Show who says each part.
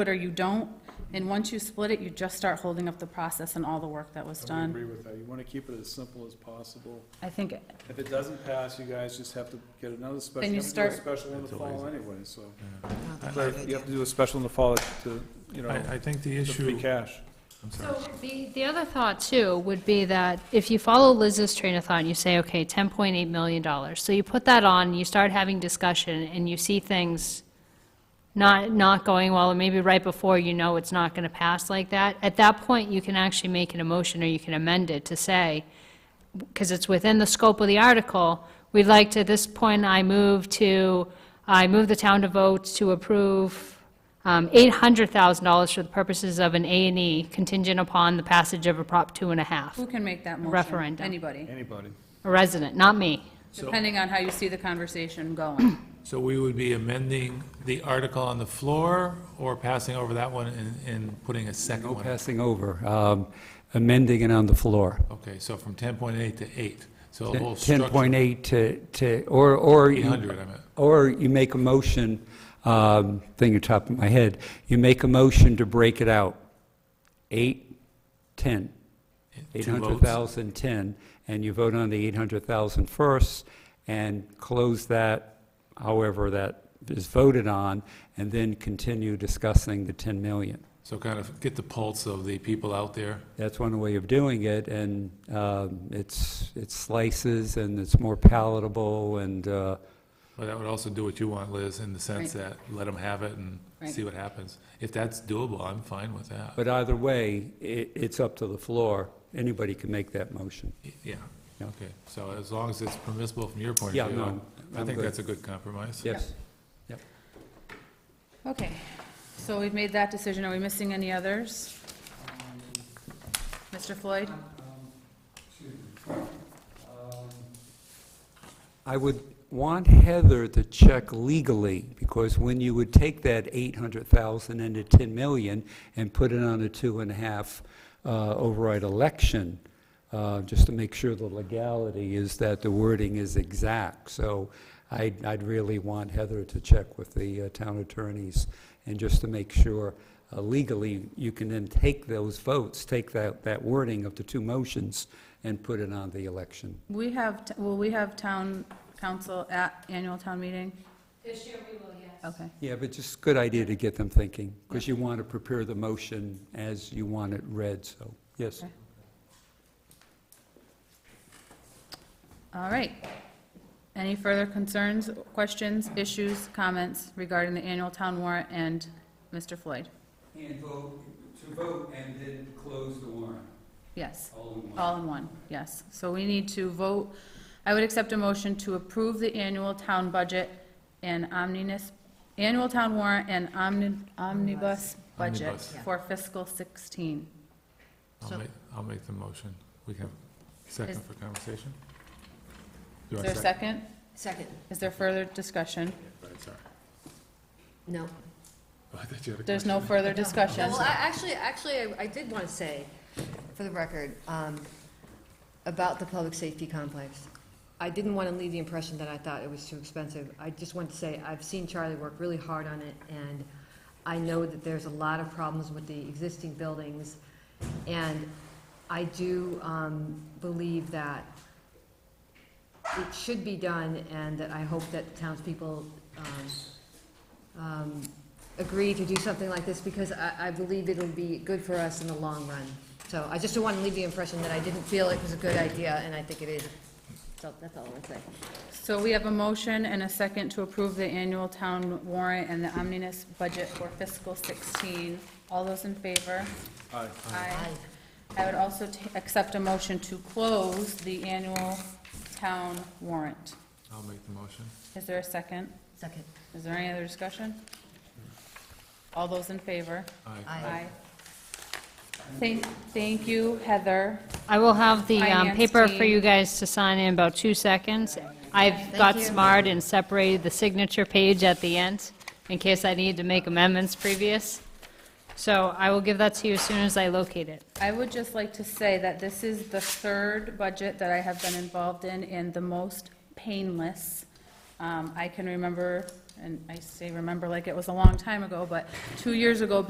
Speaker 1: it or you don't, and once you split it, you just start holding up the process and all the work that was
Speaker 2: I would
Speaker 1: done.
Speaker 2: agree with that. You want to keep it as simple as possible.
Speaker 1: I think,
Speaker 2: If it doesn't pass, you guys just have to get another special.
Speaker 1: Then you
Speaker 2: have to do a
Speaker 1: start-
Speaker 2: Special in the fall anyway, so.
Speaker 3: that's a good
Speaker 2: You have to do a special in the fall to, you know,
Speaker 4: Oh.
Speaker 5: I, I think
Speaker 2: to
Speaker 5: the
Speaker 2: free
Speaker 5: issue,
Speaker 2: cash.
Speaker 6: So the, the other thought too would be that if you follow Liz's train of thought, and you say, okay, ten point eight million dollars. So you put that on, you start having discussion and you see things not, not going well, or maybe right before you know it's not gonna pass like that. At that point, you can actually make an emotion or you can amend it to say, because it's within the scope of the article, we'd like to, at this point, I move to, I move the town to vote to approve um, $800,000 for the purposes of an A and E contingent upon the passage of a Prop two and a half.
Speaker 1: who can make that motion?
Speaker 6: Referendum.
Speaker 1: Anybody,
Speaker 2: Anybody.
Speaker 6: A resident, not me.
Speaker 1: depending on how you see the conversation going.
Speaker 5: so we would be amending the article on the floor or passing over that one and, and putting a second
Speaker 4: No
Speaker 5: one?
Speaker 4: passing over, um, amending it on the floor.
Speaker 5: Okay, so from 10.8 to 8, so the whole structure.
Speaker 4: 10.8 to, to, or, or. you-
Speaker 5: 800, I meant.
Speaker 4: Or you make a motion, um, thing on top of my head, you make a motion to break it out. 8, 10,
Speaker 5: Two votes.
Speaker 4: 800,000, 10, and you vote on the 800,000 first, and close that however that is voted on, and then continue discussing the 10 million.
Speaker 5: So kind of get the pulse of the people out there.
Speaker 4: That's one way of doing it, and um, it's, it slices, and it's more palatable, and, uh,
Speaker 5: But that would also do what you want, Liz, in the sense that let them have it and see what happens. If that's doable, I'm fine with that.
Speaker 4: but either way, it, it's up to the floor. Anybody can make that motion.
Speaker 5: Yeah,
Speaker 4: Yeah.
Speaker 5: okay. So as long as it's permissible from your point
Speaker 4: Yeah,
Speaker 5: of view,
Speaker 4: no,
Speaker 5: I- I
Speaker 4: I'm
Speaker 5: think
Speaker 4: good.
Speaker 5: that's a good compromise.
Speaker 4: Yes.
Speaker 1: Okay, so we've made that decision. Are we missing any others? Mr. Floyd?
Speaker 4: I would want Heather to check legally, because when you would take that 800,000 into 10 million and put it on a two and a half uh, override election, uh, just to make sure the legality is that the wording is exact. So I'd I'd really want Heather to check with the uh, town attorneys, and just to make sure uh, legally, you can then take those votes, take that that wording of the two motions, and put it on the election.
Speaker 1: We have, t- will we have town council at annual town meeting?
Speaker 6: This year we will, yes.
Speaker 1: Okay.
Speaker 4: Yeah, but just good idea to get them thinking, because you want to prepare the motion as you want it read, so, yes.
Speaker 1: Okay. All right. Any further concerns, questions, issues, comments regarding the annual town warrant and Mr. Floyd?
Speaker 4: And vote, to vote and then close the warrant,
Speaker 1: Yes,
Speaker 4: all in
Speaker 1: all in one, yes. So we need to vote, I would accept a motion to approve the annual town budget and omnibus, annual town warrant and omni- omnibus budget
Speaker 5: Omnibus.
Speaker 1: for fiscal 16.
Speaker 5: I'll make, I'll make the motion. We can,
Speaker 1: Is-
Speaker 5: second for conversation? Do
Speaker 1: Is
Speaker 5: I
Speaker 1: there a second?
Speaker 3: Second,
Speaker 1: Is there further discussion?
Speaker 5: Right, sorry.
Speaker 3: no.
Speaker 5: Oh, I thought you had a
Speaker 1: There's no
Speaker 5: question.
Speaker 1: further
Speaker 3: No,
Speaker 1: discussion.
Speaker 3: Well, I, actually, actually, I- I did want to say, for the record, um, about the public safety complex. I didn't want to leave the impression that I thought it was too expensive. I just want to say, I've seen Charlie work really hard on it, and I know that there's a lot of problems with the existing buildings. And I do, um, believe that it should be done, and that I hope that townspeople, um, um, agree to do something like this because I, I believe it'll be good for us in the long run. So I just don't want to leave the impression that I didn't feel it was a good idea, and I think it is. So that's all I'm saying.
Speaker 1: So we have a motion and a second to approve the annual town warrant and the omnibus budget for fiscal 16. All those in favor?
Speaker 2: Aye.
Speaker 1: Aye. I would also ta- accept a motion to close the annual town warrant.
Speaker 5: I'll make the motion.
Speaker 1: Is there a second?
Speaker 3: Second.
Speaker 1: Is there any other discussion? All those in favor?
Speaker 5: Aye.
Speaker 3: Aye.
Speaker 1: Thank, thank you, Heather.
Speaker 6: I will have the um,
Speaker 1: Finance
Speaker 6: paper for
Speaker 1: team.
Speaker 6: you guys to sign in about two seconds. I've got
Speaker 3: you.
Speaker 6: smart and separated the signature page at the end in case I need to make amendments previous. So I will give that to you as soon as I locate it.
Speaker 1: I would just like to say that this is the third budget that I have been involved in and the most painless. Um, I can remember, and I say remember like it was a long time ago, but two years ago,